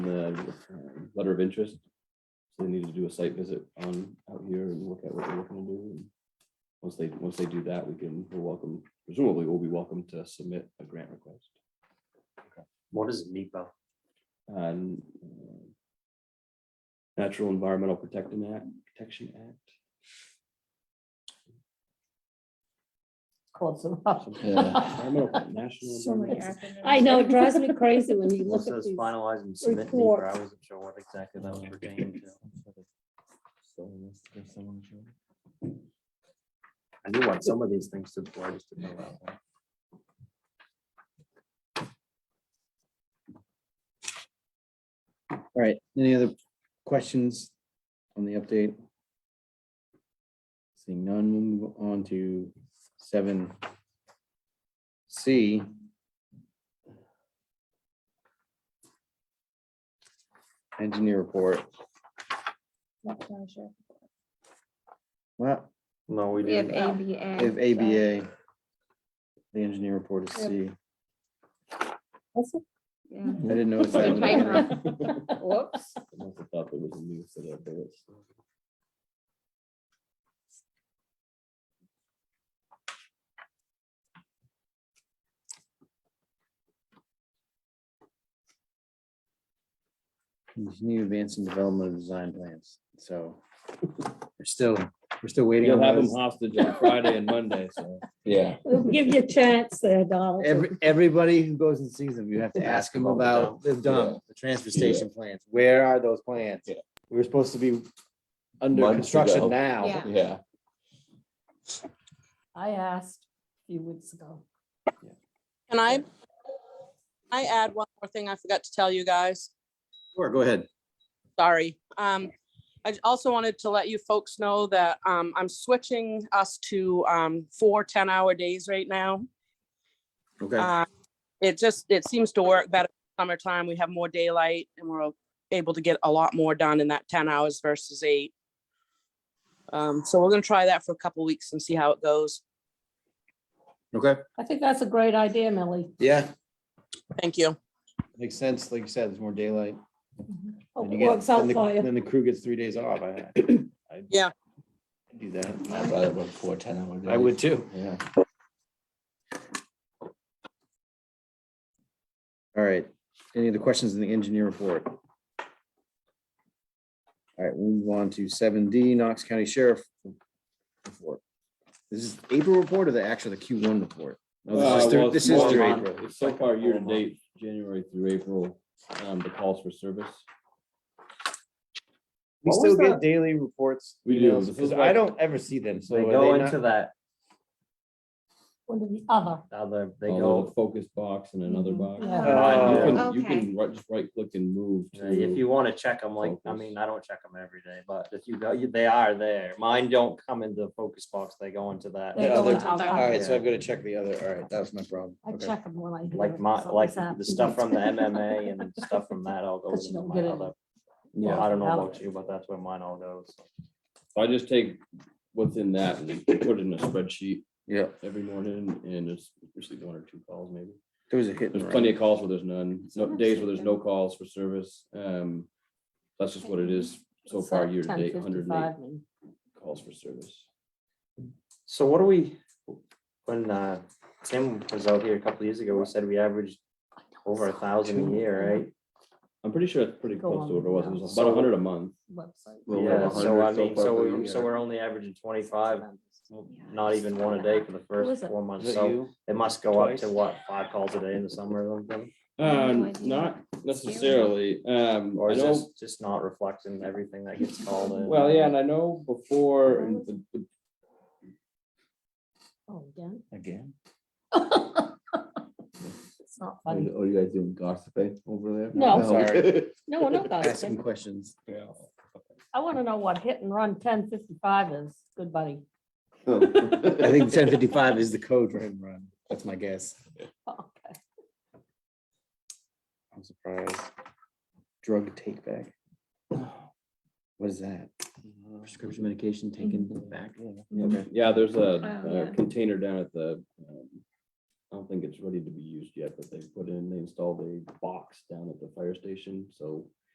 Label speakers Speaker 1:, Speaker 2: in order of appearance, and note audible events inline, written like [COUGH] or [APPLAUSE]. Speaker 1: uh, letter of interest. So they need to do a site visit on out here and look at what they're looking to do. and Once they, once they do that, we can, we're welcome, presumably we'll be welcome to submit a grant request.
Speaker 2: What is NEPA?
Speaker 1: And uh, Natural Environmental Protecting Act, Protection Act.
Speaker 3: Close [LAUGHS] enough.
Speaker 1: Environmental-
Speaker 4: [LAUGHS]
Speaker 1: National
Speaker 4: So many
Speaker 1: Environmental-
Speaker 4: acronyms.
Speaker 5: I know, it drives me crazy when you
Speaker 2: It
Speaker 5: look at
Speaker 2: says
Speaker 5: these.
Speaker 2: finalize and submit NEPA.
Speaker 5: reports.
Speaker 2: I wasn't sure what exactly that was pertaining to. I knew what some of these things stood for. I just didn't know that one.
Speaker 6: All right, any other questions on the update? Seeing none, we'll move on to seven C. Engineer report,
Speaker 4: Not quite sure.
Speaker 6: well,
Speaker 2: No, we
Speaker 4: We have
Speaker 2: didn't.
Speaker 4: ABA.
Speaker 6: if ABA, the engineer report is C.
Speaker 4: Yeah.
Speaker 6: I didn't notice
Speaker 5: [LAUGHS]
Speaker 6: that.
Speaker 4: Good pipe, Whoops.
Speaker 1: I must have thought there was a new set of bullets.
Speaker 6: Continue advancing development of design plans, so we're still, we're still waiting.
Speaker 1: You'll
Speaker 6: on
Speaker 1: have them
Speaker 6: those.
Speaker 1: hostage on Friday and Monday,
Speaker 6: [LAUGHS]
Speaker 1: so.
Speaker 7: Yeah.
Speaker 5: We'll give you a chance there, Donald.
Speaker 6: Every, everybody who goes and sees them, you have to ask them about the dump, the transfer station plans. Where are those plans?
Speaker 7: Yeah.
Speaker 6: We were supposed to be under
Speaker 7: Months
Speaker 6: construction
Speaker 7: ago.
Speaker 6: now.
Speaker 4: Yeah.
Speaker 7: Yeah.
Speaker 3: I asked a few weeks ago.
Speaker 8: Can I? I add one more thing I forgot to tell you guys.
Speaker 6: Sure, go ahead.
Speaker 8: Sorry. Um, I also wanted to let you folks know that, um, I'm switching us to, um, four 10-hour days right now.
Speaker 6: Okay.
Speaker 8: Uh, It just, it seems to work better summertime. We have more daylight and we're able to get a lot more done in that 10 hours versus eight. Um, so we're gonna try that for a couple weeks and see how it goes.
Speaker 6: Okay.
Speaker 3: I think that's a great idea, Millie.
Speaker 6: Yeah,
Speaker 8: Thank you.
Speaker 6: makes sense. Like you said, there's more daylight.
Speaker 3: Oh,
Speaker 5: Hope
Speaker 6: and you
Speaker 5: it
Speaker 6: get-
Speaker 5: works out
Speaker 6: then the-
Speaker 5: for you.
Speaker 6: Then the crew gets three days off. I I-
Speaker 8: Yeah.
Speaker 6: I'd Do that.
Speaker 7: I'd rather work four ten hour days.
Speaker 6: [LAUGHS] I would too.
Speaker 7: Yeah.
Speaker 6: All right. Any other questions in the engineer report? All right, we'll move on to seven D, Knox County Sheriff. report. This is April report or the actual, the Q one report? No,
Speaker 1: Uh,
Speaker 6: this is
Speaker 1: well,
Speaker 6: through-
Speaker 1: it's
Speaker 6: This
Speaker 1: more
Speaker 6: is through
Speaker 1: on-
Speaker 6: April.
Speaker 1: it's So far, year to date, January through April, um, the calls for service.
Speaker 6: We
Speaker 2: What
Speaker 6: still
Speaker 2: was
Speaker 6: get
Speaker 2: that?
Speaker 6: daily reports.
Speaker 1: We do.
Speaker 6: emails,
Speaker 1: This is
Speaker 6: 'cause I
Speaker 1: like-
Speaker 6: don't ever see them, so.
Speaker 2: They
Speaker 6: are
Speaker 2: go
Speaker 6: not-
Speaker 2: into that,
Speaker 3: One or the other.
Speaker 2: other, they
Speaker 1: A
Speaker 2: go,
Speaker 1: little focus box and another
Speaker 3: Mhm.
Speaker 1: box.
Speaker 3: Yeah.
Speaker 1: Uh, You
Speaker 2: Oh.
Speaker 1: can, you
Speaker 4: Okay.
Speaker 1: can right, just right click and move to.
Speaker 2: if you want to check them, like, I
Speaker 1: Focus.
Speaker 2: mean, I don't check them every day, but if you go, you- they are there. Mine don't come into the focus box. They go into that. uh,
Speaker 3: They
Speaker 6: Yeah,
Speaker 3: go
Speaker 6: they're-
Speaker 3: into other.
Speaker 6: All right, so I've got to check the other. All right, that was my problem.
Speaker 3: I
Speaker 6: Okay.
Speaker 3: check them when I. hear
Speaker 2: Like
Speaker 3: if
Speaker 2: my, like
Speaker 3: something's
Speaker 2: the
Speaker 3: happening.
Speaker 2: stuff from the
Speaker 3: [LAUGHS]
Speaker 2: MMA and stuff from that all goes
Speaker 3: Because you
Speaker 2: into
Speaker 3: don't
Speaker 2: my
Speaker 3: get it.
Speaker 2: other.
Speaker 1: Yeah.
Speaker 2: I don't know
Speaker 3: Out.
Speaker 2: about you, but that's where mine all goes.
Speaker 1: So I just take what's in that and put it in a spreadsheet
Speaker 6: Yeah,
Speaker 1: every morning and it's usually one or two calls maybe.
Speaker 6: there was a hit. and
Speaker 1: There's
Speaker 6: run.
Speaker 1: plenty of calls where there's none, no days where there's no calls for service. Um, that's just what it is so
Speaker 3: It's
Speaker 1: far,
Speaker 3: at
Speaker 1: year to date,
Speaker 3: 10:55
Speaker 1: hundred and eight
Speaker 3: and-
Speaker 1: calls for service.
Speaker 2: So what do we, when uh, Tim was out here a couple years ago, we said we averaged over a thousand a year, right?
Speaker 1: I'm pretty sure it's pretty
Speaker 3: Go
Speaker 1: close to
Speaker 3: on,
Speaker 1: what it was. It
Speaker 3: yeah.
Speaker 1: was about
Speaker 2: So-
Speaker 1: hundred a month.
Speaker 3: Website.
Speaker 6: Well,
Speaker 2: Yeah,
Speaker 6: over
Speaker 2: so
Speaker 6: 100
Speaker 2: I
Speaker 6: so
Speaker 2: mean,
Speaker 6: far
Speaker 2: so
Speaker 6: for
Speaker 2: we,
Speaker 6: the
Speaker 2: so
Speaker 6: year.
Speaker 2: we're only averaging twenty-five, not even one a day for the first
Speaker 3: was it?
Speaker 2: four
Speaker 6: Is
Speaker 2: months,
Speaker 6: that
Speaker 2: so
Speaker 6: you?
Speaker 2: it must go up to
Speaker 6: Twice?
Speaker 2: what, five calls a day in the summer or something?
Speaker 4: have no
Speaker 1: Um,
Speaker 4: idea.
Speaker 1: not necessarily. Um,
Speaker 2: Or
Speaker 1: I
Speaker 2: is
Speaker 1: know,
Speaker 2: this just not reflecting everything that gets called in?
Speaker 1: well, yeah, and I know before, and the- the-
Speaker 3: Oh, again.
Speaker 7: Again.
Speaker 3: It's not
Speaker 7: Are
Speaker 3: funny.
Speaker 7: you are you guys doing gossiping over there?
Speaker 3: No.
Speaker 6: I'm sorry.
Speaker 5: No, we're not
Speaker 6: Asking
Speaker 5: gossiping.
Speaker 6: questions.
Speaker 1: [LAUGHS]
Speaker 3: I want to know what hit and run ten fifty-five is. Good buddy. [LAUGHS]
Speaker 6: I think ten fifty-five is the code for him run. That's my guess.
Speaker 3: Okay.
Speaker 6: I'm surprised. Drug take [SIGHS] back. What is that? Hmm. Prescription medication taken back? Okay.
Speaker 1: yeah, there's
Speaker 4: Wow,
Speaker 1: a,
Speaker 4: yeah.
Speaker 1: a container down at the, um, I don't think it's ready to be used yet, but they put in, they installed a box down at the fire station, so